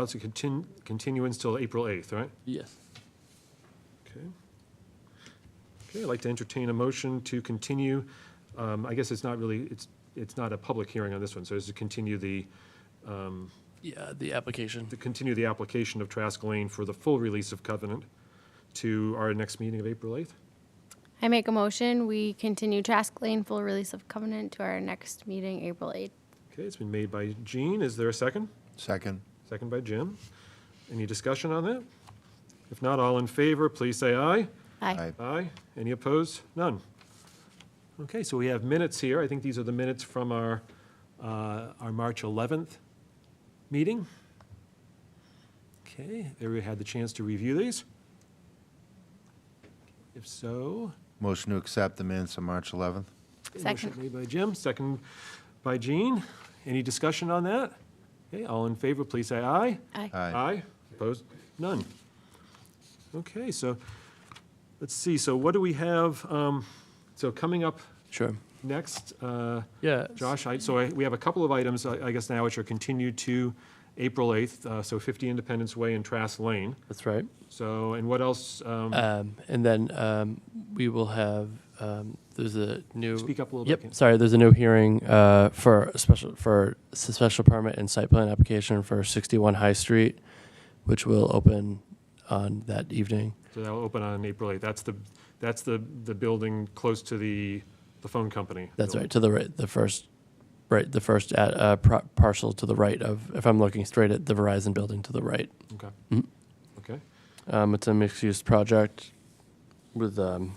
That's a contin- continuance till April 8th, right? Yes. Okay. Okay, I'd like to entertain a motion to continue, um, I guess it's not really, it's, it's not a public hearing on this one, so it's to continue the, Yeah, the application. to continue the application of Trask Lane for the full release of covenant to our next meeting of April 8th. I make a motion, we continue Trask Lane full release of covenant to our next meeting, April 8th. Okay, it's been made by Gene. Is there a second? Second. Second by Jim. Any discussion on that? If not, all in favor, please say aye. Aye. Aye. Any opposed? None. Okay, so we have minutes here. I think these are the minutes from our, uh, our March 11th meeting. Okay, everybody had the chance to review these? If so, Motion to accept the minutes of March 11th. okay, Second. motion made by Jim, second by Jean. Any discussion on that? Okay, all in favor, please say aye. Aye. Aye. Opposed? None. Okay, so, let's see, so what do we have, um, so coming up Sure. next, uh, Yeah. Josh, I, so I- we have a couple of items, I I guess now, which are continued to April 8th, uh, so 50 Independence Way and Trass Lane. That's right. So, and what else, um, Um, and then um, we will have um, there's a new. speak up a little bit. Yep. Sorry. There's a new hearing uh, for a special for s- special permit and site plan application for 61 High Street, which will open on that evening. So that'll open on April 8th. That's the, that's the, the building close to the, the phone company. That's right to the right. The first. Right, the first at, uh, pro- parcel to the right of, if I'm looking straight at the Verizon building to the right. Okay. Mhm. Okay, Um, it's a mixed-use project with um,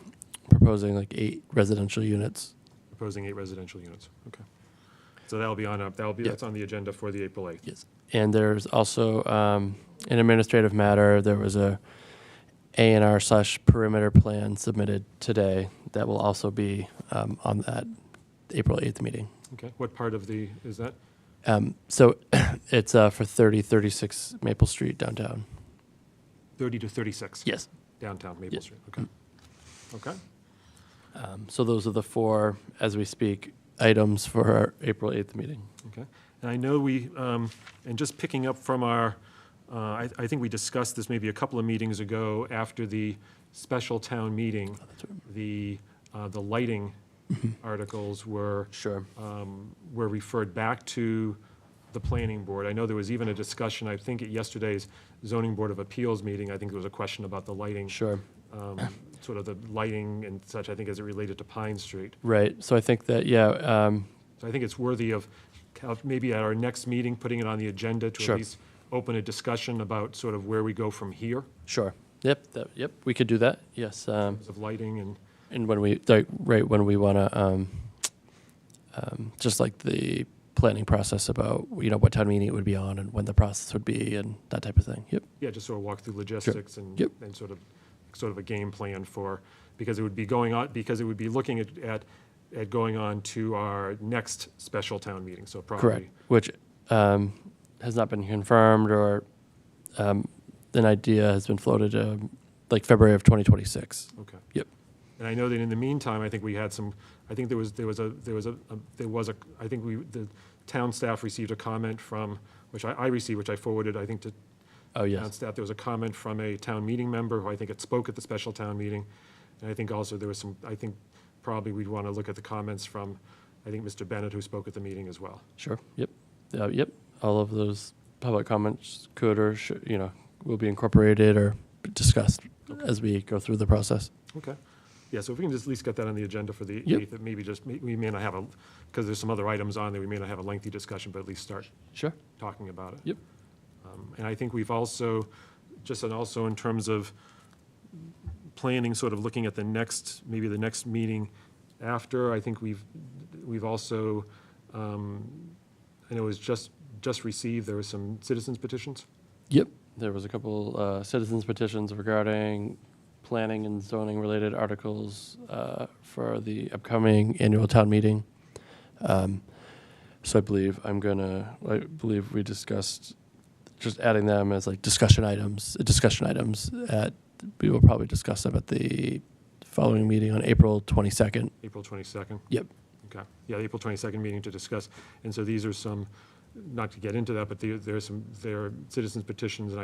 proposing like eight residential units. proposing eight residential units, okay. So that'll be on, up. that'll be, Yep. that's on the agenda for the April 8th. Yes. And there's also um, an administrative matter. There was a A and R slash perimeter plan submitted today that will also be um, on that April eighth meeting. Okay, what part of the, is that? Um, so it's uh, for thirty thirty six Maple Street downtown. 30 to 36? Yes. Downtown Maple Yes. Street, okay. Okay, Um, so those are the four, as we speak, items for our April eighth meeting. okay. And I know we, um, and just picking up from our, uh, I I think we discussed this maybe a couple of meetings ago after the special town meeting, the, uh, the lighting articles were, Sure. um, were referred back to the planning board. I know there was even a discussion, I think at yesterday's zoning board of appeals meeting, I think there was a question about the lighting, Sure. um, sort of the lighting and such, I think as it related to Pine Street. Right. So I think that yeah. Um, So I think it's worthy of of maybe at our next meeting, putting it on the agenda to at Sure. least open a discussion about sort of where we go from here, sure. Yep. That, yep. We could do that. Yes. Um, of lighting and, And when we, like, right, when we want to, um, um, just like the planning process about, you know, what town meeting it would be on and when the process would be and that type of thing. Yep. yeah, just sort of walk through logistics and, Yep. and sort of, sort of a game plan for, because it would be going on, because it would be looking at, at, at going on to our next special town meeting, so probably. Correct. Which, um, has not been confirmed or, um, an idea has been floated, um, like February of 2026. Okay. Yep. And I know that in the meantime, I think we had some, I think there was, there was a, there was a, a- there was a, I think we, the town staff received a comment from, which I, I received, which I forwarded, I think to Oh, town yes. staff. There was a comment from a town meeting member who I think had spoke at the special town meeting. And I think also there was some, I think probably we'd want to look at the comments from, I think, Mr. Bennett, who spoke at the meeting as well. Sure. Yep. Uh, yep. All of those public comments could or should, you know, will be incorporated or discussed as we go through the process. Okay. Yeah, so if we can just at least get that on the agenda for the Yep. 8th, that maybe just, may- we may not have a, because there's some other items on there, we may not have a lengthy discussion, but at least start Sure. talking about it. Yep. Um, And I think we've also, just and also in terms of planning, sort of looking at the next, maybe the next meeting after, I think we've, we've also, um, I know it was just, just received, there were some citizens petitions. Yep. There was a couple uh, citizens petitions regarding planning and zoning related articles uh, for the upcoming annual town meeting. Um, so I believe I'm gonna. I believe we discussed just adding them as like discussion items. Discussion items at we will probably discuss them at the following meeting on April 22nd. April 22nd? Yep. Okay, yeah, the April 22nd meeting to discuss. And so these are some, not to get into that, but there, there are some, there are citizens petitions, and I